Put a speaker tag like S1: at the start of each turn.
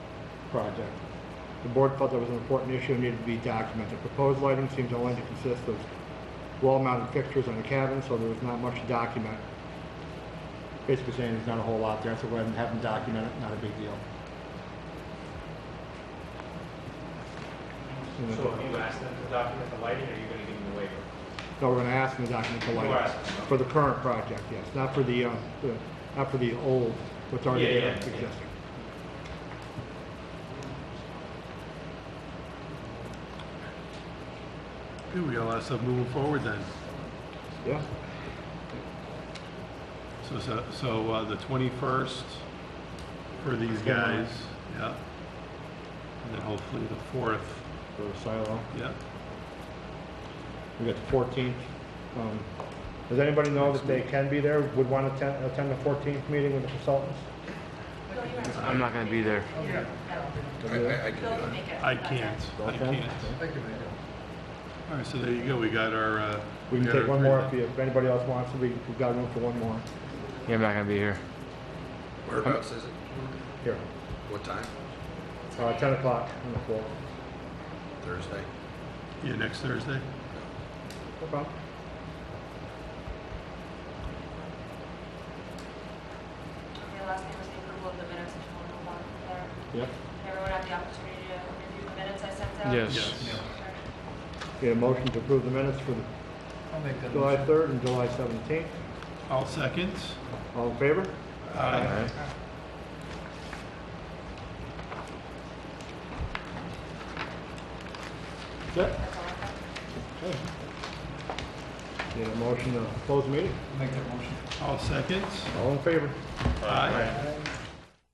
S1: project. The board felt that was an important issue and needed to be documented. Proposed lighting seems only to consist of wall-mounted fixtures on the cabin, so there was not much to document. Basically saying there's not a whole lot there, so go ahead and have them document it, not a big deal.
S2: So if you ask them to document the lighting, are you gonna give them a waiver?
S1: No, we're gonna ask them to document the
S2: You
S1: lighting.
S2: are asking them.
S1: For the current project, yes, not for the, uh, the- not for the old, what's already
S2: Yeah, yeah,
S1: there
S2: yeah.
S1: existing.
S3: Good, we got a lot of stuff moving forward then.
S1: Yeah,
S3: So, so, so uh, the 21st for these guys, yeah. And then hopefully the 4th,
S1: for the silo.
S3: yeah.
S1: We got the fourteenth. Um, does anybody know that they can be there, would want to attend, attend the fourteenth meeting with the consultants?
S4: I'm not gonna be there.
S5: I, I, I can do
S6: Bill can
S5: it.
S6: make it.
S3: I can't, I can't. All right, so there you go, we got our, uh.
S1: We can
S3: got
S1: take
S3: our
S1: one
S3: three
S1: more
S3: then.
S1: if you, if anybody else wants to, we, we've got room for one more.
S4: Yeah, I'm not gonna be here.
S5: Whereabouts is it?
S1: Here,
S5: What time?
S1: uh, ten o'clock on the floor.
S5: Thursday?
S3: Yeah, next Thursday?
S1: No problem.
S6: The last thing was the approval of the minutes, if you want to move on from there.
S1: Yep.
S6: Everyone had the opportunity to review the minutes I sent out?
S4: Yes.
S3: Yes.
S1: Get a motion to approve the minutes for the July third and July seventeenth.
S3: All seconds?
S1: All in favor?
S4: Alright.
S1: Yep.
S6: That's all I have.
S1: Get a motion to close the meeting.
S3: All seconds?
S1: All in favor?
S3: Aye.